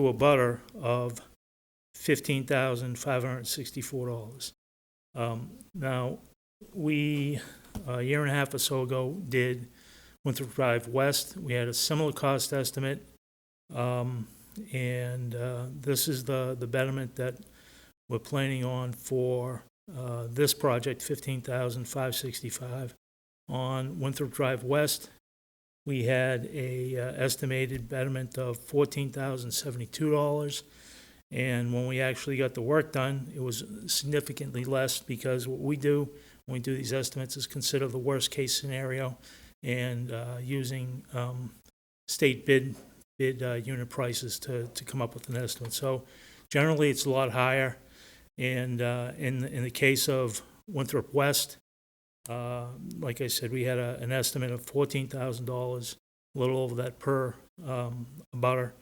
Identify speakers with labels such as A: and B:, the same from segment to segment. A: to a butter of fifteen thousand five hundred and sixty-four dollars. Um, Now, we, a year and a half or so ago, did Winthrop Drive West. We had a similar cost estimate. Um, And uh, this is the, the betterment that we're planning on for uh, this project, fifteen thousand five sixty-five. On Winthrop Drive West, we had a uh, estimated betterment of fourteen thousand seventy-two dollars. And when we actually got the work done, it was significantly less because what we do when we do these estimates is consider the worst-case scenario and uh, using um, state bid, bid uh, unit prices to, to come up with an estimate. So generally, it's a lot higher. And uh, in, in the case of Winthrop West, uh, like I said, we had a, an estimate of fourteen thousand dollars, a little over that per, um, butter.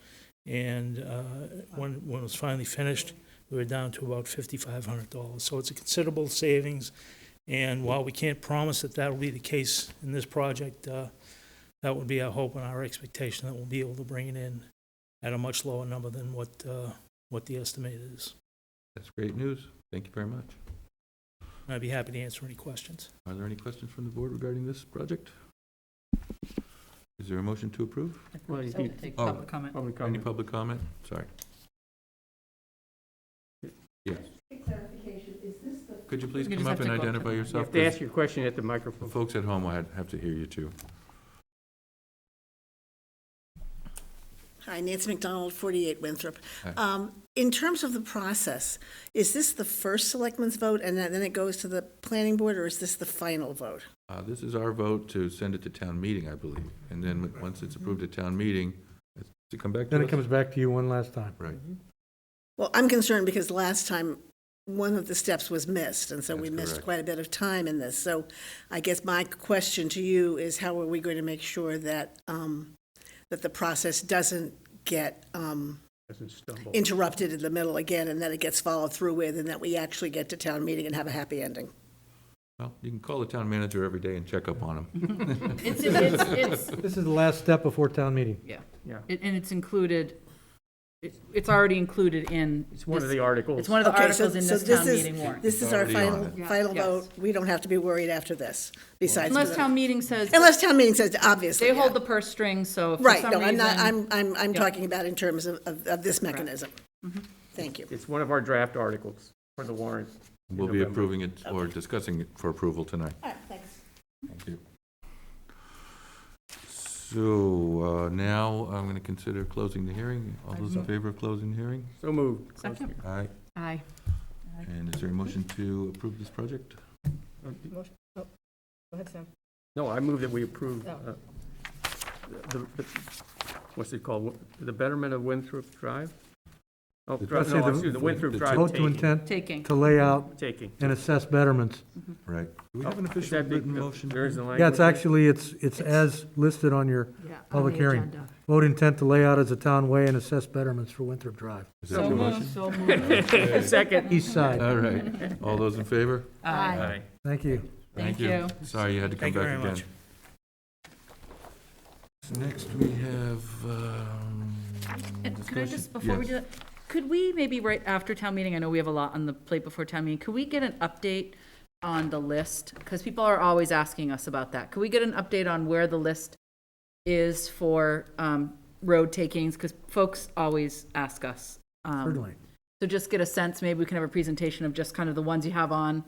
A: And, uh, when, when it was finally finished, we were down to about fifty-five hundred dollars. So it's a considerable savings. And while we can't promise that that'll be the case in this project, uh, that would be our hope and our expectation that we'll be able to bring it in at a much lower number than what, uh, what the estimate is.
B: That's great news. Thank you very much.
A: And I'd be happy to answer any questions.
B: Are there any questions from the board regarding this project? Is there a motion to approve?
C: Well, you
D: So we'll
C: can-
D: take
B: Oh.
D: public comment.
C: Public
B: Any
C: comment.
B: public comment? Sorry. Yes. Could you please
D: You
B: come
D: just
B: up and
D: have to go up to
B: identify
D: the-
C: You
B: yourself?
C: have to
B: 'Cause
C: ask your question at the
B: the
C: microphone.
B: Folks at home will have- have to hear you too.
E: Hi, Nancy McDonald, 48 Winthrop.
B: Hi.
E: Um, In terms of the process, is this the first selectman's vote and then it goes to the planning board, or is this the final vote?
B: Uh, This is our vote to send it to town meeting, I believe. And then w- once it's approved at town meeting, it's to come back to us?
F: Then it comes back to you one last time.
B: Right.
E: Well, I'm concerned because last time, one of the steps was missed, and so we
B: That's
E: missed
B: correct.
E: quite a bit of time in this. So I guess my question to you is how are we going to make sure that, um, that the process doesn't get um,
C: Doesn't stumble.
E: interrupted in the middle again and that it gets followed through with and that we actually get to town meeting and have a happy ending?
B: Well, you can call the town manager every day and check up on him.
D: It's, it's, it's,
F: This is the last step before town meeting.
D: yeah,
C: Yeah.
D: It- and it's included, it's, it's already included in.
C: It's one of
D: this-
C: the articles.
D: It's one of the
E: Okay, so-
D: articles in
E: so
D: this town
E: this is-
D: meeting warrant.
E: This is our
B: It's already on
E: final,
D: it.
E: final
D: Yeah, yes.
E: vote. We don't have to be worried after this, besides.
D: Unless town meeting says,
E: Unless town meeting says, obviously.
D: they hold
E: yeah.
D: the purse string, so if for
E: Right,
D: some
E: no, I'm not,
D: reason-
E: I'm, I'm, I'm
D: Yeah.
E: talking about in terms of, of of this mechanism.
D: mm-hmm.
E: Thank you.
C: It's one of our draft articles for the warrant.
B: We'll be
C: November.
B: approving it or discussing it for approval tonight.
E: All right, thanks.
B: Thank you. So uh, now I'm going to consider closing the hearing. All those in favor of closing the hearing?
C: So moved.
D: Second.
B: Aye.
D: Aye.
B: And is there a motion to approve this project?
C: No, I move that we approve
D: Oh.
C: uh, the, the- what's it called? The betterment of Winthrop Drive? Oh,
B: Let's
C: Drive-
B: say
C: no,
B: the-
C: excuse, the Winthrop
B: the
C: Drive
F: Vote to
C: taking.
F: intent
D: Taking.
F: to lay out
C: Taking.
F: and assess betterments.
B: Right. Do we
C: Oh,
B: have an
C: is
B: official
C: that big-
B: written motion?
C: There is a language.
F: Yeah, it's actually, it's, it's as listed on your public hearing. Vote intent to lay out as a town way and assess betterments for Winthrop Drive.
B: Is that the motion?
D: So moved.
C: Second.
F: East side.
B: All right. All those in favor?
D: Aye.
C: Aye.
F: Thank you.
D: Thank you.
B: Sorry, you had to come
A: Thank you
B: back
A: very
B: again. Next, we have, um,
D: And Could I
B: discussion-
D: just, before we
B: yes.
D: do that, could we maybe right after town meeting, I know we have a lot on the plate before town meeting, could we get an update on the list? Because people are always asking us about that. Could we get an update on where the list is for um, road takings? Because folks always ask us. um,
F: Certainly.
D: So just get a sense, maybe we can have a presentation of just kind of the ones you have on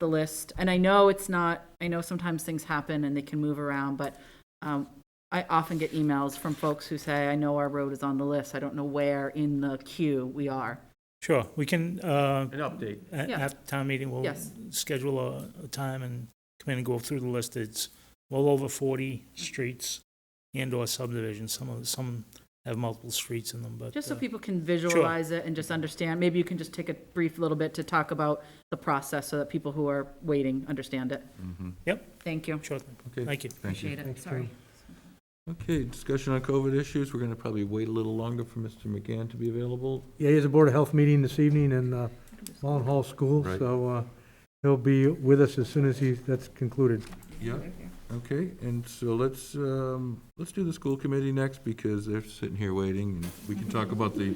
D: the list. And I know it's not, I know sometimes things happen and they can move around, but um, I often get emails from folks who say, I know our road is on the list. I don't know where in the queue we are.
A: Sure, we can, uh,
C: An update.
A: a-
D: Yeah.
A: after town meeting, we'll
D: Yes.
A: schedule a, a time and come in and go through the list. It's well over forty streets and/or subdivisions. Some of, some have multiple streets in them, but.
D: Just so
A: uh,
D: people can visualize it and just understand. Maybe you can just take a brief little bit to talk about the process so that people who are waiting understand it.
A: Yep,
D: Thank you.
A: sure,
B: Mm-hmm. Okay,
A: thank you.
B: thank you.
D: Appreciate it.
F: Thanks,
D: Sorry.
F: Tom.
B: Okay, discussion on COVID issues. We're going to probably wait a little longer for Mr. McGann to be available.
F: Yeah, he has a Board of Health meeting this evening in uh, Mullen Hall School,
B: Right.
F: so uh, he'll be with us as soon as he, that's concluded.
B: Yeah. Okay, and so let's, um, let's do the school committee next because they're sitting here waiting and we can talk about the